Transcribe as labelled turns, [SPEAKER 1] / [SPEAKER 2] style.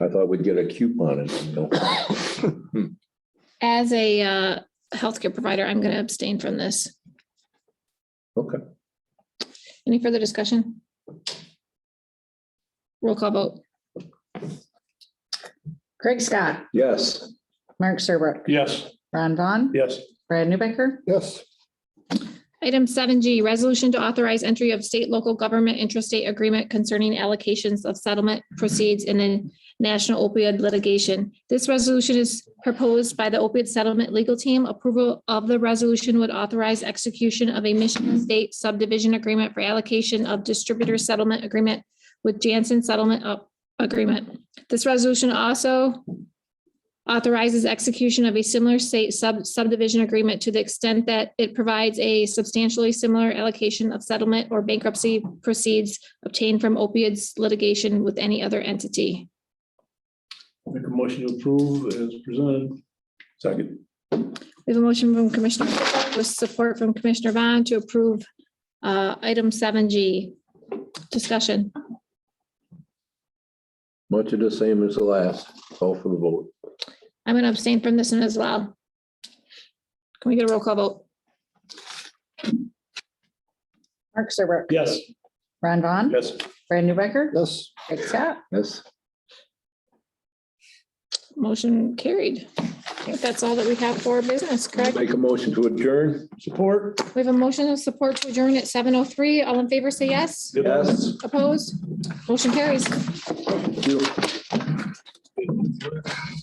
[SPEAKER 1] I thought we'd get a coupon. and something else.
[SPEAKER 2] As a uh, healthcare provider, I'm going to abstain from this.
[SPEAKER 1] Okay,
[SPEAKER 2] Any further discussion? Roll call vote.
[SPEAKER 3] Craig Scott,
[SPEAKER 1] yes.
[SPEAKER 3] Mark Serbrook,
[SPEAKER 4] Yes.
[SPEAKER 3] Ron Vaughn,
[SPEAKER 4] Yes.
[SPEAKER 3] Brad Newbecker,
[SPEAKER 1] Yes.
[SPEAKER 2] Item seven G, resolution to authorize entry of state, local government intrastate agreement concerning allocations of settlement proceeds in a national opioid litigation. This resolution is proposed by the opioid settlement legal team. Approval of the resolution would authorize execution of a Michigan State subdivision agreement for allocation of distributor settlement agreement with Janssen Settlement uh, Agreement. This resolution also authorizes execution of a similar state sub subdivision agreement to the extent that it provides a substantially similar allocation of settlement or bankruptcy proceeds obtained from opioids litigation with any other entity.
[SPEAKER 4] Make a motion to approve as presented.
[SPEAKER 1] Second,
[SPEAKER 2] We have a motion from Commissioner Fix with support from Commissioner Vaughn to approve uh, item seven G. Discussion.
[SPEAKER 1] much of the same as the last, call for the vote.
[SPEAKER 2] I'm going to abstain from this one as well. Can we get a roll call vote?
[SPEAKER 3] Mark Serbrook,
[SPEAKER 4] Yes.
[SPEAKER 3] Ron Vaughn,
[SPEAKER 4] Yes.
[SPEAKER 3] Brad Newbecker,
[SPEAKER 1] Yes.
[SPEAKER 3] Craig Scott.
[SPEAKER 1] Yes.
[SPEAKER 2] Motion carried. I think that's all that we have for business, correct?
[SPEAKER 1] Make a motion to adjourn.
[SPEAKER 4] Support?
[SPEAKER 2] We have a motion of support to adjourn at seven oh three. All in favor, say yes.
[SPEAKER 1] Yes.
[SPEAKER 2] Opposed? Motion carries.
[SPEAKER 1] Thank you.